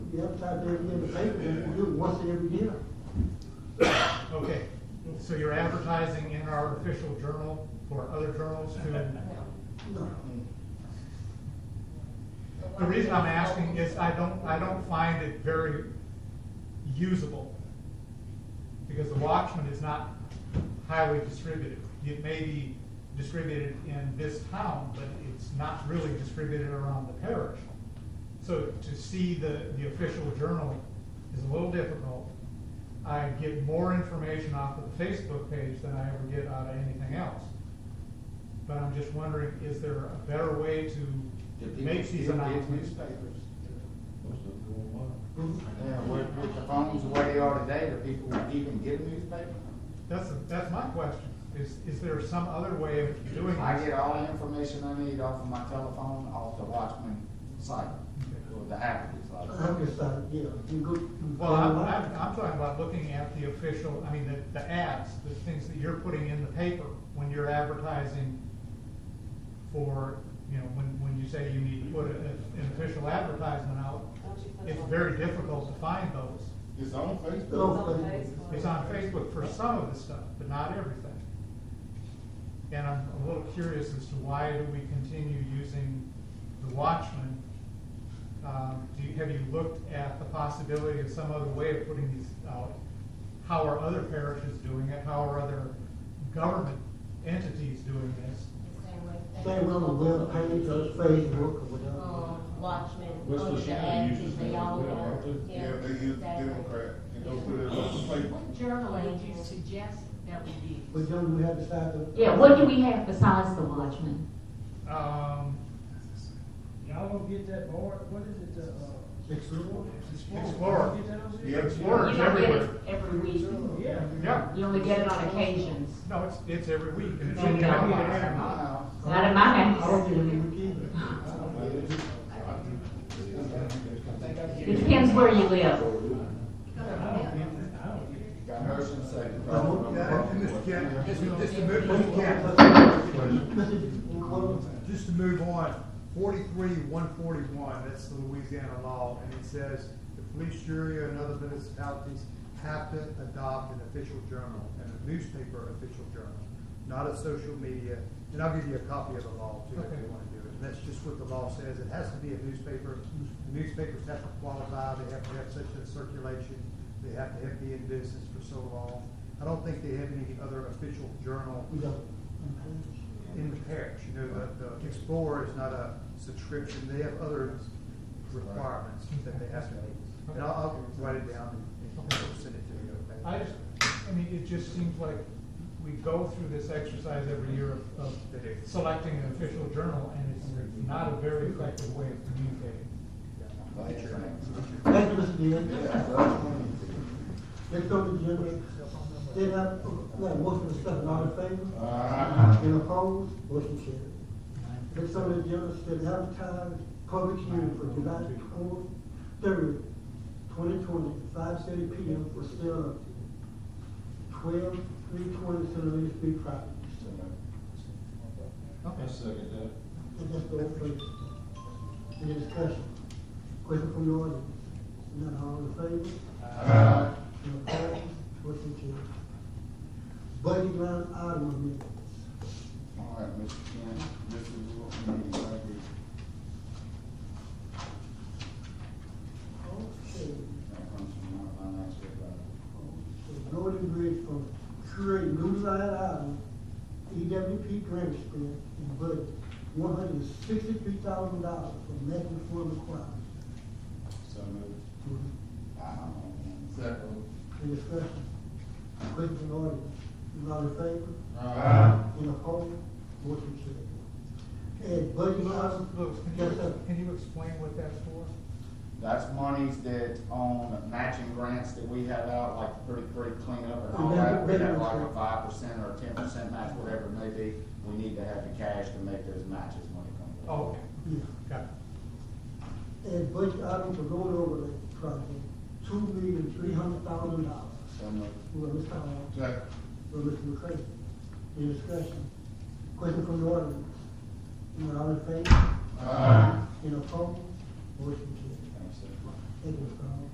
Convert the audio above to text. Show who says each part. Speaker 1: the upside down in the paper, and we do it once every year.
Speaker 2: Okay, so you're advertising in our official journal for other journals to,
Speaker 1: No.
Speaker 2: the reason I'm asking is I don't, I don't find it very usable. Because the Watchman is not highly distributed. It may be distributed in this town, but it's not really distributed around the parish. So to see the, the official journal is a little difficult. I get more information off of the Facebook page than I ever get out of anything else. But I'm just wondering, is there a better way to
Speaker 3: If
Speaker 2: make
Speaker 3: people
Speaker 2: these
Speaker 3: still get
Speaker 2: announcements?
Speaker 3: Newspapers.
Speaker 1: Mhm.
Speaker 3: Yeah, with, with the phones the way they are today, do people even get a newspaper?
Speaker 2: That's, that's my question, is, is there some other way of doing this?
Speaker 3: I get all the information I need off of my telephone, off the Watchman site, or the app is like.
Speaker 1: I'm just like, yeah, you go. you
Speaker 2: Well, I'm,
Speaker 1: go
Speaker 2: I'm,
Speaker 1: online.
Speaker 2: I'm talking about looking at the official, I mean, the, the ads, the things that you're putting in the paper when you're advertising for, you know, when, when you say you need to put a- an official advertisement out, it's very difficult to find those.
Speaker 3: It's on
Speaker 1: It's on
Speaker 2: Oh.
Speaker 3: Facebook.
Speaker 1: Facebook.
Speaker 2: It's on Facebook for some of the stuff, but not everything. And I'm a little curious as to why do we continue using the Watchman? Um, do you, have you looked at the possibility of some other way of putting these out? How are other parishes doing it? How are other government entities doing this?
Speaker 1: Same on the web page or Facebook or
Speaker 4: Oh.
Speaker 1: whatever.
Speaker 5: Um, Watchmen.
Speaker 6: West
Speaker 5: under the
Speaker 6: Virginia
Speaker 5: ads,
Speaker 6: uses
Speaker 5: they
Speaker 6: that as
Speaker 5: all
Speaker 6: well,
Speaker 5: are.
Speaker 6: aren't they?
Speaker 7: Yeah, they use
Speaker 5: exactly.
Speaker 7: Democrat, and
Speaker 5: Yeah.
Speaker 7: they'll put it on the paper.
Speaker 8: What journal would you suggest that we use?
Speaker 1: But then we have to start to.
Speaker 4: Yeah, what do we have besides the Watchman?
Speaker 2: Um,
Speaker 9: Y'all gonna get that board, what is it, the, uh?
Speaker 1: Explore.
Speaker 2: Explorer.
Speaker 9: Get that over there?
Speaker 7: The
Speaker 2: Explorer.
Speaker 7: Explorer.
Speaker 4: You don't get it
Speaker 2: everywhere.
Speaker 4: every week.
Speaker 9: Yeah.
Speaker 2: yeah,
Speaker 4: You only get it on occasions.
Speaker 2: no, it's, it's every week. and it's
Speaker 3: I
Speaker 2: in
Speaker 3: get
Speaker 2: the
Speaker 3: it
Speaker 2: outline.
Speaker 3: at my house.
Speaker 4: Not in my
Speaker 1: I don't give a damn either.
Speaker 4: house.
Speaker 3: I don't get it. I think I get it.
Speaker 4: Depends where you live.
Speaker 9: I don't get it, I don't get it.
Speaker 3: Got motion second.
Speaker 7: I hope that- and Mr. Ken-
Speaker 10: Just to move on, forty-three, one forty-one, that's the Louisiana law, and it says, the police jury and other municipalities have to adopt an official journal, and a newspaper official journal, not a social media, and I'll give you a copy of the law too, if
Speaker 2: Okay.
Speaker 10: you wanna do it, and that's just what the law says, it has to be a newspaper, The newspapers have to qualify, they have to have such a circulation, they have to have been in business for so long, I don't think they have any other official journal
Speaker 1: We don't.
Speaker 10: in the parish, you know, the, the Explorer is not a subscription, they have other requirements that they have to meet. And I'll, I'll write it down and and send it to you, okay?
Speaker 2: I just, I mean, it just seems like we go through this exercise every year of, of selecting an official journal, and it's not a very effective way of communicating.
Speaker 3: What's your name?
Speaker 1: Thank you, Mr. Dean.
Speaker 3: Yeah, so that's one.
Speaker 1: Let's go to the general. Then I, like, most of the stuff, all in favor?
Speaker 3: Uh,
Speaker 1: In opposed, motion carried. Next on the agenda, set advertise public hearing for July twenty third, twenty twenty, five thirty P M for sale of twelve three twenty Centennial Street property.
Speaker 6: I second that.
Speaker 1: And that's the whole thing. Any discussion? Question from the audience? None, all in favor?
Speaker 3: uh,
Speaker 1: Any opposed? Motion carried. Budget line item amendments.
Speaker 3: All right, Mr. Ken, this is what we need right here.
Speaker 1: Okay.
Speaker 3: That comes from our financial advisor.
Speaker 1: The Northern Bridge for create new line item, EWP E grant spend, and budget, one hundred and sixty-three thousand dollars for medical reform requirements.
Speaker 3: So moved. I don't know.
Speaker 1: Any discussion? Question from the audience, you all in favor?
Speaker 3: Uh,
Speaker 1: In opposed, motion carried. And budget
Speaker 2: Uh,
Speaker 1: item,
Speaker 2: Lewis, can
Speaker 1: yes, sir.
Speaker 2: you, can you explain what that's for?
Speaker 3: That's monies that on matching grants that we have out, like the thirty-three cleanup and all
Speaker 1: Remember-
Speaker 3: that, we have
Speaker 1: remember-
Speaker 3: like a five percent or ten percent match, whatever it may be. We need to have the cash to make those matches when it comes.
Speaker 2: Oh, okay,
Speaker 1: Yeah.
Speaker 2: got it.
Speaker 1: And budget item for road overlay project, two million, three hundred thousand dollars.
Speaker 3: So moved.
Speaker 1: Who are Mr. Hall?
Speaker 7: Second.
Speaker 1: for Mr. McCray. Any discussion? Question from the audience? Anyone all in favor?
Speaker 7: Aye.
Speaker 1: In opposed? Motion carried.
Speaker 3: Thanks, sir.
Speaker 1: It was, um,